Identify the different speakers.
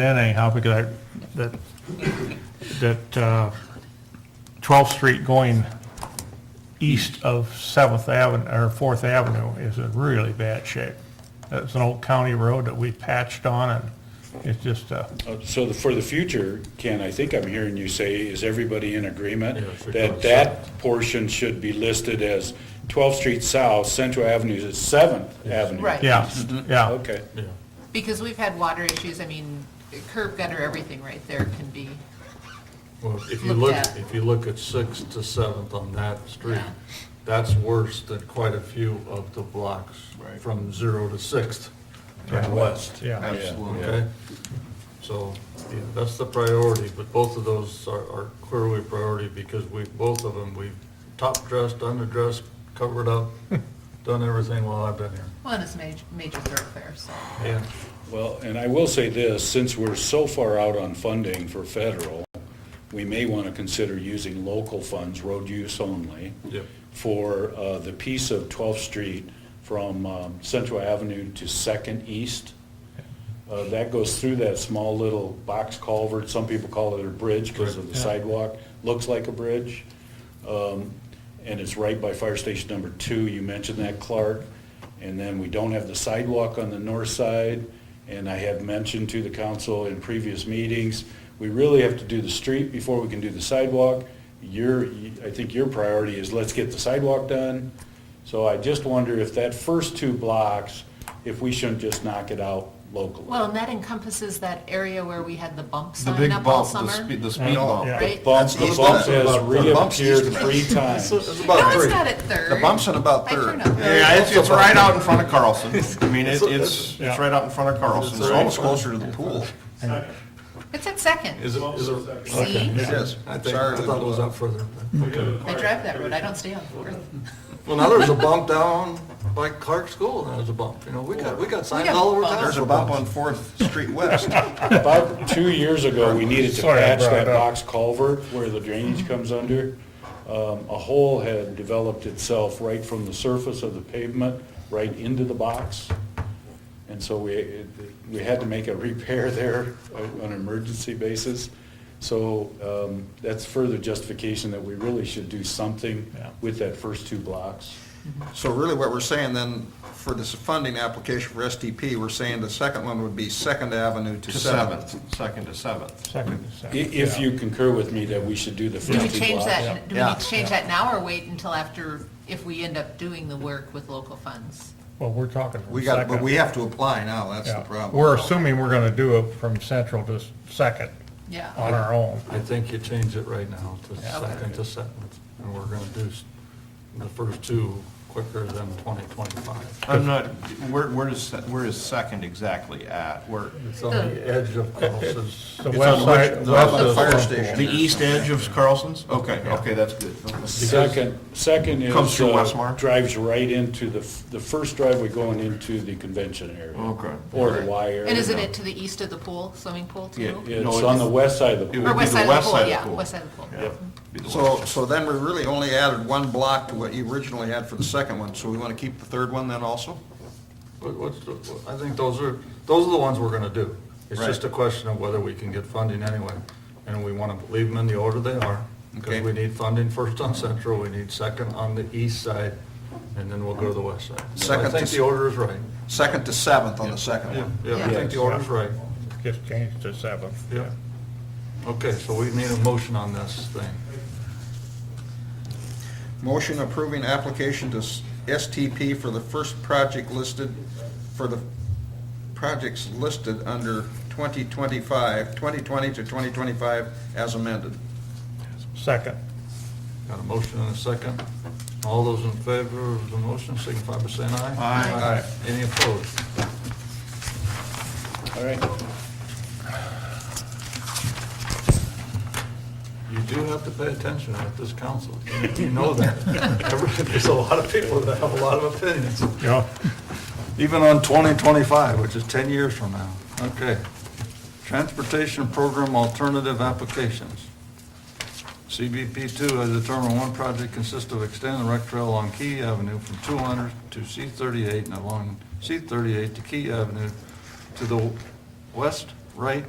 Speaker 1: in anyhow, because I, that, that uh, 12th Street going east of 7th Avenue, or 4th Avenue is in really bad shape. It's an old county road that we patched on, and it's just, uh,
Speaker 2: Uh, So the- for the future, Ken, I think I'm hearing you say, is everybody in agreement
Speaker 3: for
Speaker 2: that
Speaker 3: 12th
Speaker 2: that portion should be listed as 12th Street South, Central Avenue is 7th Avenue?
Speaker 4: Right.
Speaker 1: yeah, yeah.
Speaker 2: Okay.
Speaker 3: Yeah,
Speaker 4: Because we've had water issues, I mean, curb gutter, everything right there can be,
Speaker 3: well, if you look,
Speaker 4: Looked at.
Speaker 3: if you look at Sixth to Seventh on that street,
Speaker 4: Yeah.
Speaker 3: that's worse than quite a few of the blocks from zero to Sixth and west,
Speaker 1: Yeah,
Speaker 3: okay? So, yeah, that's the priority, but both of those are, are clearly priority because we, both of them, we've top dressed, underdressed, covered up, done everything while I've been here.
Speaker 4: well, and it's major, major thoroughfare, so.
Speaker 3: Yeah.
Speaker 2: Well, and I will say this, since we're so far out on funding for federal, we may want to consider using local funds, road use only,
Speaker 3: Yep.
Speaker 2: for uh, the piece of 12th Street from um, Central Avenue to Second East. Uh, That goes through that small little box culvert, some people call it a bridge because of the sidewalk, looks like a bridge. Um, And it's right by fire station number two, you mentioned that, Clark. And then we don't have the sidewalk on the north side, and I have mentioned to the council in previous meetings, we really have to do the street before we can do the sidewalk. Your, I think your priority is let's get the sidewalk done. So I just wonder if that first two blocks, if we shouldn't just knock it out locally.
Speaker 4: Well, and that encompasses that area where we had the bump
Speaker 5: The
Speaker 4: sign
Speaker 5: big
Speaker 4: up all
Speaker 5: bump, the
Speaker 4: summer.
Speaker 5: speed, the speed bump.
Speaker 1: Yeah.
Speaker 4: Right?
Speaker 2: Bump,
Speaker 5: That's-
Speaker 2: the
Speaker 5: that's
Speaker 2: bump has
Speaker 5: about- the bump's
Speaker 2: reappeared
Speaker 5: used to
Speaker 2: three
Speaker 5: be-
Speaker 2: times.
Speaker 5: It's about
Speaker 4: No, it's
Speaker 5: three.
Speaker 4: not at Third.
Speaker 5: The bump's at about
Speaker 4: I turn
Speaker 5: third.
Speaker 4: up.
Speaker 5: Yeah, it's, it's right out in front of Carlson. I mean, it's, it's, it's
Speaker 1: Yeah.
Speaker 5: right out in front of Carlson. It's
Speaker 3: right.
Speaker 5: almost closer to the pool.
Speaker 4: It's at Second,
Speaker 3: Is it, is it?
Speaker 4: see?
Speaker 5: It is.
Speaker 3: I think, I
Speaker 5: Sorry.
Speaker 3: thought it was up further.
Speaker 4: I drive that road, I don't stay on Fourth.
Speaker 3: Well, now there's a bump down by Clark School, and there's a bump, you know, we got, we got signs all over town.
Speaker 5: There's a bump on Fourth Street West.
Speaker 2: About two years ago, we needed to
Speaker 1: Sorry, I
Speaker 2: patch
Speaker 1: brought it
Speaker 2: that
Speaker 1: up.
Speaker 2: box culvert where the drainage comes under. Um, A hole had developed itself right from the surface of the pavement, right into the box. And so we, it- we had to make a repair there on an emergency basis. So um, that's further justification that we really should do something
Speaker 1: Yeah.
Speaker 2: with that first two blocks.
Speaker 5: So really what we're saying then, for this funding application for STP, we're saying the second one would be Second Avenue to
Speaker 6: To
Speaker 5: Seventh.
Speaker 6: seventh, second to seventh.
Speaker 1: second,
Speaker 2: I-
Speaker 1: second.
Speaker 2: If you concur with me that we should do the
Speaker 4: Do we
Speaker 2: first two blocks.
Speaker 4: change that, do we
Speaker 5: Yeah.
Speaker 4: need to change that now or wait until after, if we end up doing the work with local funds?
Speaker 1: Well, we're talking from
Speaker 5: We got, but
Speaker 1: second.
Speaker 5: we have to apply now, that's the
Speaker 1: Yeah.
Speaker 5: problem.
Speaker 1: We're assuming we're gonna do it from central to second
Speaker 4: Yeah,
Speaker 1: on our own.
Speaker 3: I think you change it right now to
Speaker 4: Yeah.
Speaker 3: second to seventh, and we're gonna do s- the first two quicker than twenty twenty-five.
Speaker 6: I'm not, where, where is, se- where is second exactly at? Where,
Speaker 3: It's on the edge of Carlson's.
Speaker 1: The
Speaker 6: It's
Speaker 1: west
Speaker 6: on
Speaker 1: side.
Speaker 6: which-
Speaker 1: west
Speaker 6: the-
Speaker 1: of
Speaker 5: the fire
Speaker 1: Whirlpool.
Speaker 5: station.
Speaker 6: the east edge of Carlson's? Okay, okay, that's good.
Speaker 2: Second, second is.
Speaker 6: Comes through
Speaker 2: uh,
Speaker 6: Westmar?
Speaker 2: Drives right into the, f- the first driveway going into the convention area.
Speaker 6: Okay.
Speaker 2: Or the Y area.
Speaker 4: and isn't it to the east of the pool, swimming pool too?
Speaker 6: Yeah,
Speaker 2: It's
Speaker 6: No, it
Speaker 2: on
Speaker 6: is-
Speaker 2: the west side of the
Speaker 6: it
Speaker 2: pool.
Speaker 6: would
Speaker 4: Or
Speaker 6: be
Speaker 4: west
Speaker 6: the
Speaker 4: side of the
Speaker 6: west side
Speaker 4: pool,
Speaker 6: of the
Speaker 4: yeah,
Speaker 6: pool.
Speaker 4: west side of the pool.
Speaker 2: Yep.
Speaker 6: Be the
Speaker 5: So,
Speaker 6: west.
Speaker 5: so then we really only added one block to what you originally had for the second one, so we want to keep the third one then also?
Speaker 3: What- what's the- what- I think those are, those are the ones we're gonna do. It's
Speaker 5: Right.
Speaker 3: just a question of whether we can get funding anyway, and we wanna leave them in the order they are. Because
Speaker 5: Okay.
Speaker 3: we need funding first on Central, we need second on the east side, and then we'll go to the west side. So I
Speaker 5: Second to
Speaker 3: think
Speaker 5: s-
Speaker 3: the order is right.
Speaker 5: Second to seventh on the second
Speaker 3: Yeah,
Speaker 5: one.
Speaker 3: yeah, I think the order's right.
Speaker 1: Just changed to seventh.
Speaker 3: Yeah. Okay, so we need a motion on this thing.
Speaker 5: Motion approving application to s- STP for the first project listed, for the projects listed under 2025, 2020 to 2025 as amended.
Speaker 1: Second.
Speaker 3: Got a motion and a second. All those in favor of the motion signify by saying aye.
Speaker 5: Aye.
Speaker 3: Any opposed?
Speaker 2: All right.
Speaker 3: You do have to pay attention at this council. You know that. There's a lot of people that have a lot of opinions.
Speaker 1: Yeah.
Speaker 3: Even on 2025, which is 10 years from now. Okay. Transportation Program Alternative Applications. CBP 2 has determined one project consists of extending the rec trail along Key Avenue from 200 to C38 and along C38 to Key Avenue to the west right